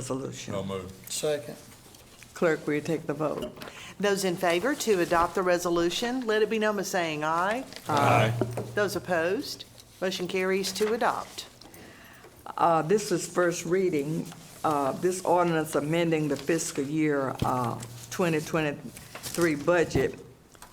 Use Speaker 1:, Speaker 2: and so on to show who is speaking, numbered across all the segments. Speaker 1: resolution.
Speaker 2: So moved.
Speaker 3: Second.
Speaker 1: Clerk, will you take the vote?
Speaker 4: Those in favor to adopt the resolution, let it be known by saying aye.
Speaker 2: Aye.
Speaker 4: Those opposed, motion carries to adopt.
Speaker 1: Uh, This is first reading. Uh, This ordinance amending the fiscal year uh, 2023 budget,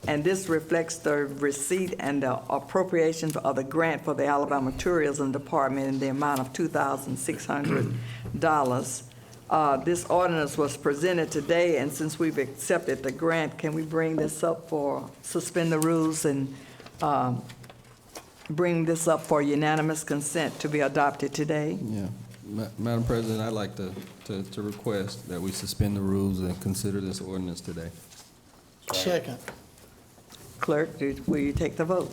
Speaker 1: and this reflects the receipt and the appropriation of the grant for the Alabama Tourism Department in the amount of $2,600. Uh, This ordinance was presented today, and since we've accepted the grant, can we bring this up for, suspend the rules and um, bring this up for unanimous consent to be adopted today?
Speaker 5: Yeah. Ma- Madam President, I'd like to, to, to request that we suspend the rules and consider this ordinance today.
Speaker 3: Second.
Speaker 1: Clerk, do- will you take the vote?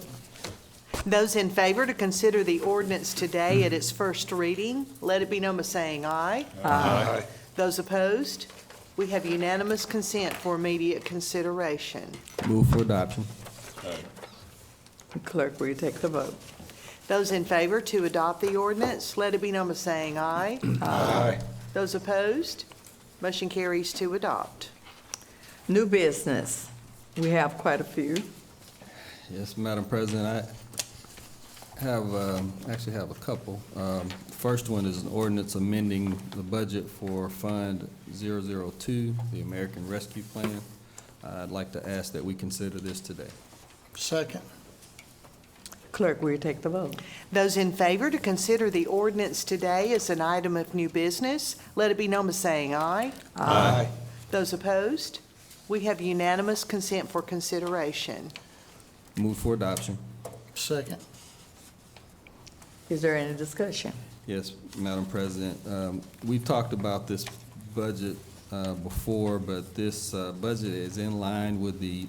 Speaker 4: Those in favor to consider the ordinance today at its first reading, let it be known by saying aye.
Speaker 2: Aye.
Speaker 4: Those opposed, we have unanimous consent for immediate consideration.
Speaker 5: Move for adoption.
Speaker 1: Clerk, will you take the vote?
Speaker 4: Those in favor to adopt the ordinance, let it be known by saying aye.
Speaker 2: Aye.
Speaker 4: Those opposed, motion carries to adopt.
Speaker 1: New business, we have quite a few.
Speaker 5: Yes, Madam President, I have, um, actually have a couple. Um, First one is an ordinance amending the budget for Fund 002, the American Rescue Plan. I'd like to ask that we consider this today.
Speaker 3: Second.
Speaker 1: Clerk, will you take the vote?
Speaker 4: Those in favor to consider the ordinance today as an item of new business, let it be known by saying aye.
Speaker 2: Aye.
Speaker 4: Those opposed, we have unanimous consent for consideration.
Speaker 5: Move for adoption.
Speaker 3: Second.
Speaker 1: Is there any discussion?
Speaker 5: Yes, Madam President, um, we've talked about this budget uh, before, but this uh, budget is in line with the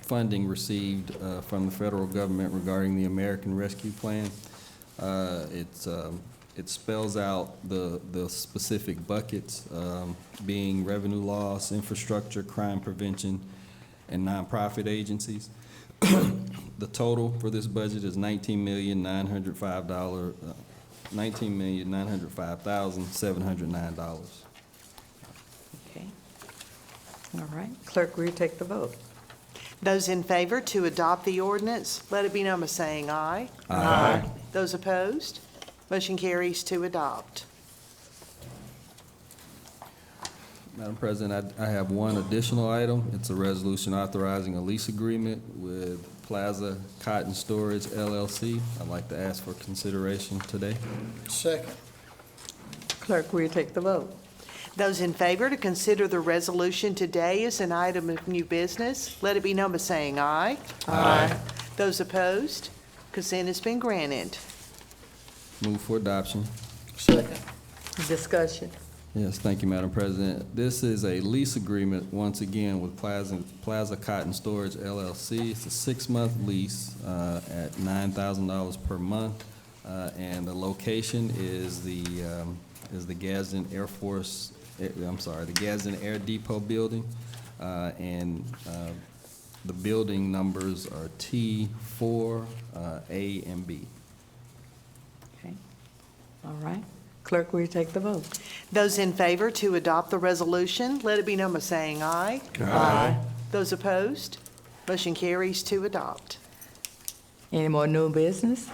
Speaker 5: funding received uh, from the federal government regarding the American Rescue Plan. Uh, It's, um, it spells out the, the specific buckets, um, being revenue loss, infrastructure, crime prevention, and nonprofit agencies. The total for this budget is nineteen million, nine hundred five dollar, uh, nineteen million, nine hundred five thousand, seven hundred nine dollars.
Speaker 1: Okay. All right. Clerk, will you take the vote?
Speaker 4: Those in favor to adopt the ordinance, let it be known by saying aye.
Speaker 5: Aye.
Speaker 4: Those opposed, motion carries to adopt.
Speaker 5: Madam President, I, I have one additional item. It's a resolution authorizing a lease agreement with Plaza Cotton Storage LLC. I'd like to ask for consideration today.
Speaker 3: Second.
Speaker 1: Clerk, will you take the vote?
Speaker 4: Those in favor to consider the resolution today as an item of new business, let it be known by saying aye. Aye. Those opposed, consent has been granted.
Speaker 5: Move for adoption.
Speaker 3: Second.
Speaker 1: Discussion.
Speaker 5: Yes, thank you, Madam President. This is a lease agreement, once again, with Plaza, Plaza Cotton Storage LLC. It's a six-month lease uh, at nine thousand dollars per month, uh, and the location is the, um, is the Gadsden Air Force, eh, I'm sorry, the Gadsden Air Depot Building, Uh, and uh, the building numbers are T four, uh, A and B.
Speaker 1: Okay. All right. Clerk, will you take the vote?
Speaker 4: Those in favor to adopt the resolution, let it be known by saying aye.
Speaker 1: Aye.
Speaker 4: Those opposed, motion carries to adopt.
Speaker 1: Any more new business?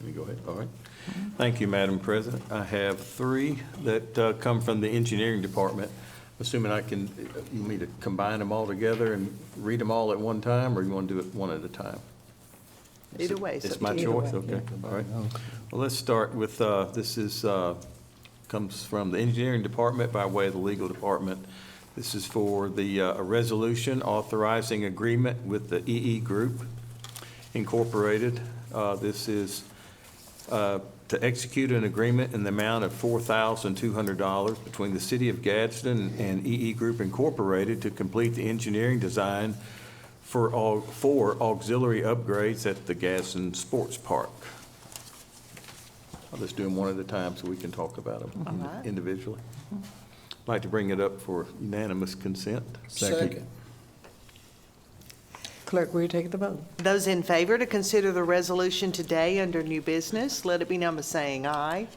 Speaker 6: Let me go ahead, all right. Thank you, Madam President. I have three that uh, come from the engineering department. Assuming I can, you want me to combine them all together and read them all at one time, or you want to do it one at a time?
Speaker 4: Either way, it's up
Speaker 6: It's
Speaker 4: to
Speaker 6: my
Speaker 4: you.
Speaker 6: choice, okay, all right. Well, let's start with, uh, this is, uh, comes from the engineering department by way of the legal department. This is for the, uh, a resolution authorizing agreement with the EE Group Incorporated. Uh, This is uh, to execute an agreement in the amount of $4,200 between the City of Gadsden and EE Group Incorporated to complete the engineering design for all, for auxiliary upgrades at the Gadsden Sports Park. I'll just do them one at a time so we can talk about
Speaker 4: All
Speaker 6: them
Speaker 4: right. Mm-hmm.
Speaker 6: individually. I'd Like to bring it up for unanimous consent.
Speaker 3: Second.
Speaker 2: Clerk, will you take the vote?
Speaker 4: Those in favor to consider the resolution today under new business, let it be number saying aye.